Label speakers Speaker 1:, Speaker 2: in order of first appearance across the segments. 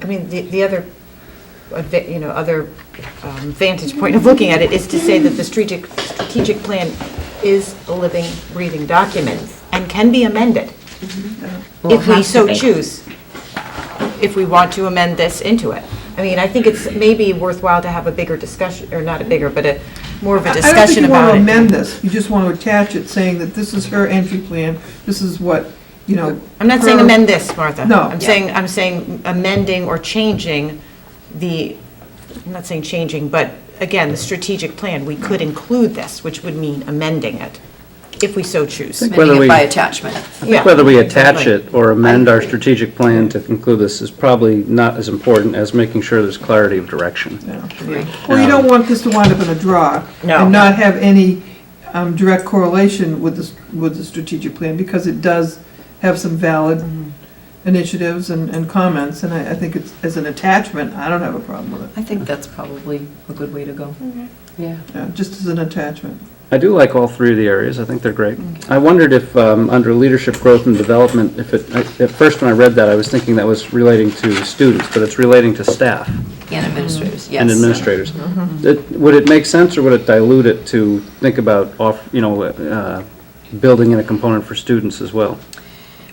Speaker 1: I mean, the, the other, adva- you know, other um, vantage point of looking at it is to say that the strategic, strategic plan is a living, breathing document and can be amended
Speaker 2: Mm-hmm. Well, it
Speaker 1: if we
Speaker 2: has to
Speaker 1: so
Speaker 2: be.
Speaker 1: choose, if we want to amend this into it. I mean, I think it's maybe worthwhile to have a bigger discussion, or not a bigger, but a, more of a
Speaker 3: I don't think
Speaker 1: discussion
Speaker 3: you want
Speaker 1: about
Speaker 3: to amend
Speaker 1: it.
Speaker 3: this, you just want to attach it, saying that this is her entry plan, this is what, you know.
Speaker 1: I'm not saying
Speaker 3: her-
Speaker 1: amend this, Martha.
Speaker 3: No.
Speaker 1: I'm saying, I'm saying amending or changing the, I'm not saying changing, but again, the strategic plan, we could include this, which would mean amending it, if we so choose.
Speaker 4: Whether
Speaker 5: amending
Speaker 4: we-
Speaker 5: it by attachment.
Speaker 4: I think
Speaker 1: Yeah.
Speaker 4: Whether we attach
Speaker 1: Right.
Speaker 4: it or amend our strategic plan to conclude this is probably not as important as making sure there's clarity of direction.
Speaker 3: Well, you don't want this to wind up in a draw.
Speaker 1: No.
Speaker 3: And not have any um, direct correlation with this, with the strategic plan, because it does have some valid
Speaker 1: Mm-hmm.
Speaker 3: initiatives and, and comments, and I, I think it's, as an attachment, I don't have a problem with it,
Speaker 5: I think that's probably a good way to go.
Speaker 4: Mm-hmm.
Speaker 5: Yeah.
Speaker 3: Yeah, just as an attachment.
Speaker 4: I do like all three of the areas, I think they're great. I wondered if, um, under leadership, growth, and development, if it, I- at first when I read that, I was thinking that was relating to students, but it's relating to staff
Speaker 5: And administrators, yes.
Speaker 4: Mm-hmm. and administrators. It- Would it make sense, or would it dilute it to think about off, you know, uh, building in a component for students as well?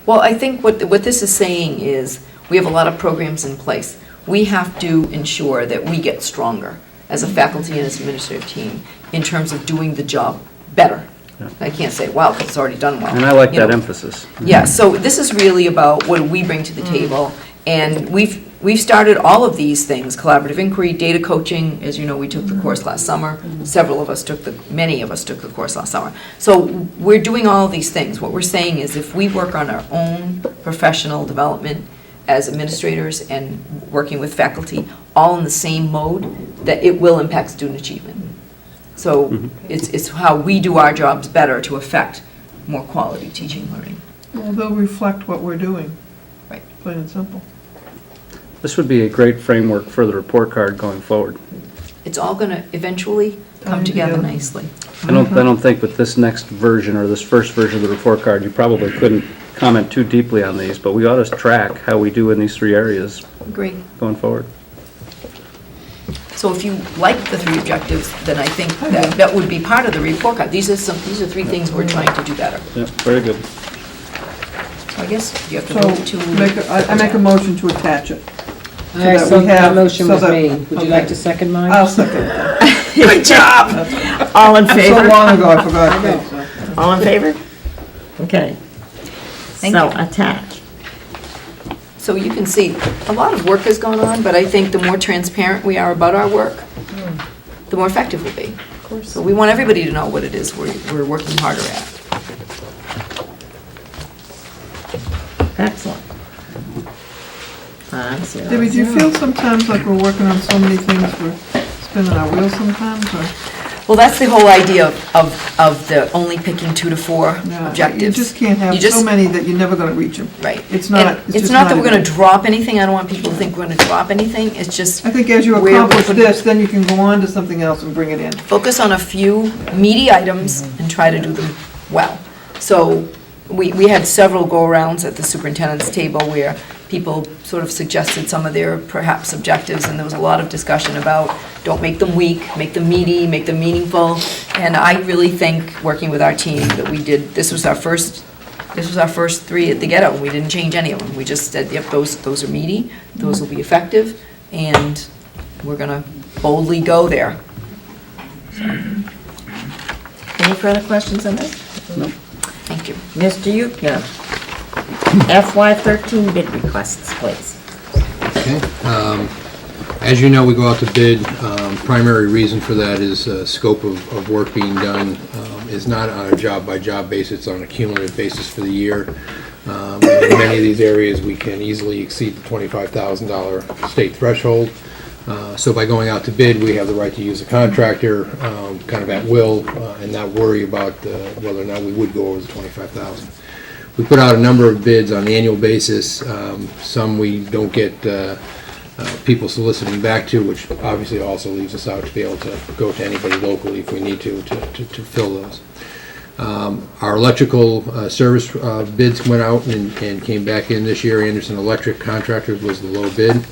Speaker 5: Well, I think what, what this is saying is, we have a lot of programs in place. We have to ensure that we get stronger as a faculty and as administrative team in terms of doing the job better. I can't say, wow, 'cause it's already done well.
Speaker 4: And I like
Speaker 5: you
Speaker 4: that
Speaker 5: know.
Speaker 4: emphasis.
Speaker 5: Yeah, so this is really about what do we bring to the table, and we've, we've started all of these things, collaborative inquiry, data coaching, as you know, we took the course last summer, several of us took the, many of us took the course last summer. So we're doing all of these things, what we're saying is if we work on our own professional development as administrators and working with faculty, all in the same mode, that it will impact student achievement. So it's, it's how we do our jobs better to affect more quality teaching and learning.
Speaker 3: Well, they'll reflect what we're doing.
Speaker 5: Right.
Speaker 3: Plain and simple.
Speaker 4: This would be a great framework for the report card going forward.
Speaker 5: It's all going to eventually come
Speaker 3: Come
Speaker 5: together
Speaker 3: together.
Speaker 5: nicely.
Speaker 4: I don't, I don't think with this next version or this first version of the report card, you probably couldn't comment too deeply on these, but we ought to track how we do in these three areas
Speaker 5: Agree.
Speaker 4: going forward.
Speaker 5: So if you like the three objectives, then I think that, that would be part of the report card. These are some, these are three things we're trying to do better.
Speaker 4: Yep, very good.
Speaker 5: So I guess you have to
Speaker 3: So,
Speaker 5: move to.
Speaker 3: make, a- I I make a motion to attach it.
Speaker 2: All right,
Speaker 3: that
Speaker 2: so
Speaker 3: we have-
Speaker 2: that motion
Speaker 3: so
Speaker 2: was
Speaker 3: that-
Speaker 2: made. Would you like to second mine?
Speaker 3: I'll second that.
Speaker 5: Good job.
Speaker 1: All in
Speaker 3: So long ago, I forgot.
Speaker 1: All in favor?
Speaker 2: Okay.
Speaker 5: Thank
Speaker 2: So
Speaker 3: uh,
Speaker 2: attach.
Speaker 5: So you can see, a lot of work has gone on, but I think the more transparent we are about our work, the more effective we'll be. Hmm. Of course. So we want everybody to know what it is we're, we're working harder at.
Speaker 2: Excellent. Five, zero,
Speaker 3: Debbie, do you
Speaker 2: zero.
Speaker 3: feel sometimes like we're working on so many things, we're spinning our wheels sometimes, or?
Speaker 5: Well, that's the whole idea of, of, of the only picking two to four
Speaker 3: No,
Speaker 5: objectives.
Speaker 3: You just can't have
Speaker 5: You
Speaker 3: so
Speaker 5: just-
Speaker 3: many that you're never gonna reach them.
Speaker 5: Right.
Speaker 3: It's not,
Speaker 5: And
Speaker 3: it's just
Speaker 5: not that we're going
Speaker 3: even-
Speaker 5: to drop anything, I don't want people to think we're going to drop anything, it's just
Speaker 3: I think as you
Speaker 5: where we're
Speaker 3: accomplish
Speaker 5: putting-
Speaker 3: this, then you can go on to something else and bring it in.
Speaker 5: focus on a few meaty items and try to do them well. So we, we had several go-arounds at the superintendent's table where people sort of suggested some of their perhaps objectives, and there was a lot of discussion about, don't make them weak, make them meaty, make them meaningful. And I really think, working with our team, that we did, this was our first, this was our first three at the ghetto, we didn't change any of them. We just said, yep, those, those are meaty, those will be effective, and we're gonna boldly go there.
Speaker 2: Any further questions on this?
Speaker 5: Thank you.
Speaker 2: Mr. Yukna, FY13 bid requests, please.
Speaker 6: Okay. um, As you know, we go out to bid. Um, Primary reason for that is uh, scope of of work being done um, is not on a job-by-job basis, it's on a cumulative basis for the year. Um, In many of these areas, we can easily exceed the $25,000 state threshold. Uh, So by going out to bid, we have the right to use a contractor um, kind of at will uh, and not worry about uh, whether or not we would go over the 25,000. We put out a number of bids on an annual basis. Um, Some we don't get uh, uh, people soliciting back to, which obviously also leaves us out to be able to go to anybody locally if we need to, to to- to fill those. Um, Our electrical uh, service uh, bids went out and and came back in this year. Anderson Electric Contractors was the low bid.